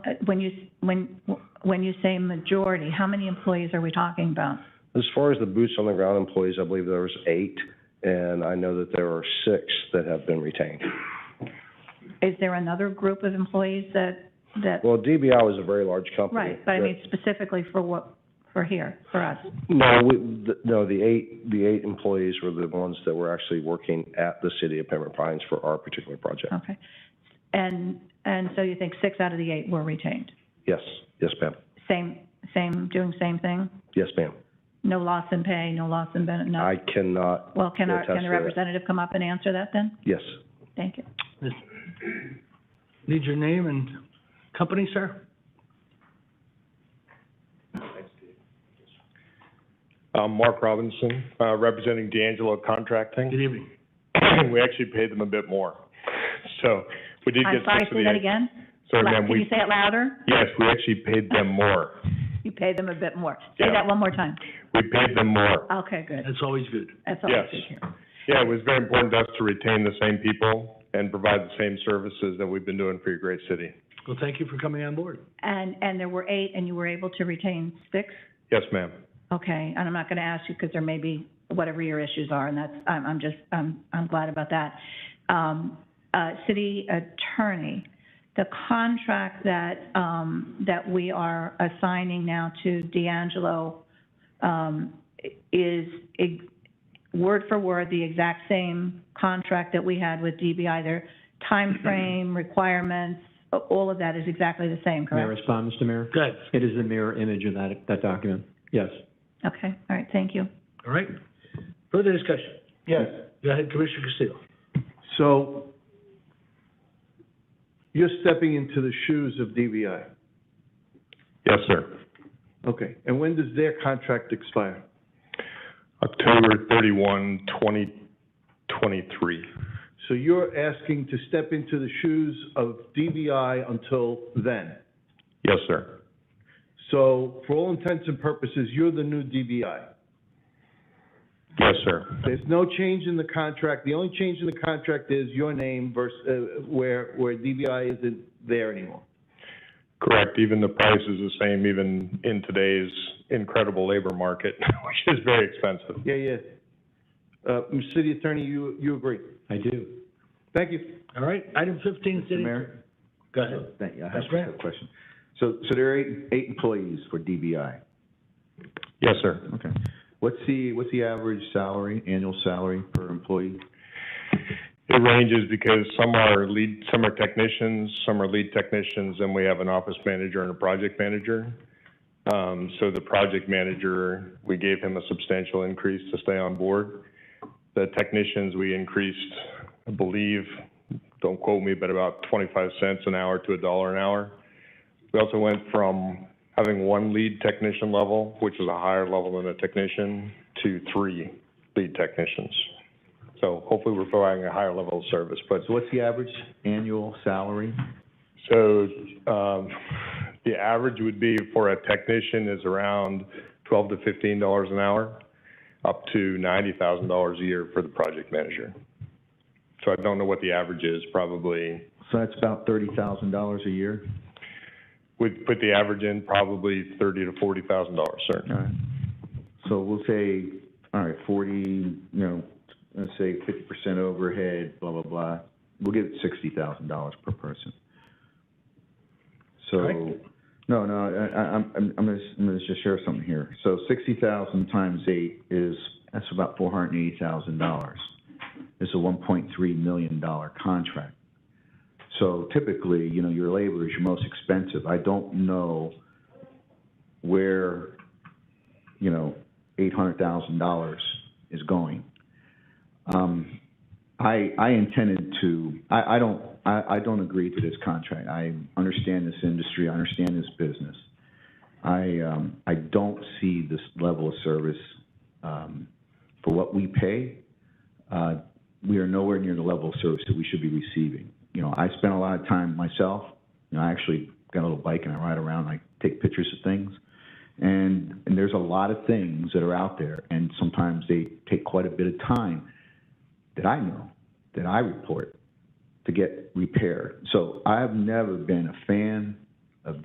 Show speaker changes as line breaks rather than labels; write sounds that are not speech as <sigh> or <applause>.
Uh, When you, s- when, when you say majority, how many employees are we talking about?
As far as the boots on the ground employees, I believe there was eight, and I know that there are six that have been retained.
Is there another group of employees that, that,
Well, DBI was a very large company.
right, but I mean specifically for what, for here, for us?
No, we, th- no, the eight, the eight employees were the ones that were actually working at the city of Pembroke Pines for our particular project.
Okay. And, and so you think six out of the eight were retained?
Yes, yes, ma'am.
Same, same, doing same thing?
Yes, ma'am.
No loss in pay, no loss in benefit, no?
I cannot,
Well, can our,
attest
can
to
the
that.
representative come up and answer that then?
yes.
Thank you.
Need your name and company, sir?
Um, Mark Robinson, uh, representing D'Angelo Contracting. <clears throat>
Good evening.
We actually paid them a bit more. So we did
I'm
get
sorry,
six of
say
the
that
eight.
again?
Sorry,
Lou-
ma'am,
Can you
we,
say it louder?
yes, we actually paid them more.
You pay them a bit more. Say
Yeah.
that one more time.
We paid them more.
Okay, good.
That's always good.
That's all I
Yes.
should hear.
Yeah, it was very important to us to retain the same people and provide the same services that we've been doing for your great city.
Well, thank you for coming on board.
And, and there were eight, and you were able to retain six?
Yes, ma'am.
Okay, and I'm not going to ask you because there may be whatever your issues are, and that's, I'm, I'm just, I'm, I'm glad about that. Um, uh, city attorney, the contract that, um, that we are assigning now to D'Angelo, um, is ex- word for word the exact same contract that we had with DBI. Their timeframe, requirements, a- all of that is exactly the same,
May I
correct?
respond, Mr. Mayor?
Good.
It is the mirror image of that, that document, yes.
Okay, all right, thank you.
All right. Further discussion?
Yes,
Go ahead, Commissioner Castillo.
so you're stepping into the shoes of DVI.
Yes, sir.
Okay, and when does their contract expire?
October 31, 2023.
So you're asking to step into the shoes of DVI until then.
Yes, sir.
So for all intents and purposes, you're the new DVI.
Yes, sir.
There's no change in the contract. The only change in the contract is your name versus, uh, where, where DVI isn't there anymore.
Correct. Even the price is the same, even in today's incredible labor market, <laughs> which is very expensive.
Yeah, yeah. Uh, Mr. City Attorney, you, you agree?
I do.
Thank you.
All right, item fifteen, city.
Mayor?
Go ahead.
Thank you. I have
That's right.
a question. So, so there are eight, eight employees for DBI.
Yes, sir.
Okay. What's the, what's the average salary, annual salary per employee?
It ranges because some are lead, some are technicians, some are lead technicians, and we have an office manager and a project manager. Um, so the project manager, we gave him a substantial increase to stay on board. The technicians, we increased, I believe, don't quote me, but about twenty-five cents an hour to a dollar an hour. We also went from having one lead technician level, which is a higher level than a technician, to three lead technicians. So hopefully we're providing a higher level of service, but,
So what's the average annual salary?
so, um, the average would be for a technician is around twelve to fifteen dollars an hour, up to ninety thousand dollars a year for the project manager. So I don't know what the average is, probably,
So that's about thirty thousand dollars a year?
would put the average in probably thirty to forty thousand dollars, sir.
All right. So we'll say, all right, forty, you know, let's say fifty percent overhead, blah, blah, blah. We'll give it sixty thousand dollars per person. So,
Correct.
no, no, I, I, I'm, I'm gonna, s- I'm gonna just share something here. So sixty thousand times eight is, that's about four hundred and eighty thousand dollars. It's a one point three million dollar contract. So typically, you know, your labor is your most expensive. I don't know where you know, eight hundred thousand dollars is going. Um, I, I intended to, I, I don't, I, I don't agree to this contract. I understand this industry, I understand this business. I, um, I don't see this level of service, um, for what we pay. Uh, we are nowhere near the level of service that we should be receiving. You know, I spend a lot of time myself, you know, I actually got a little bike and I ride around, I take pictures of things. And, and there's a lot of things that are out there, and sometimes they take quite a bit of time that I know, that I report, to get repaired. So I've never been a fan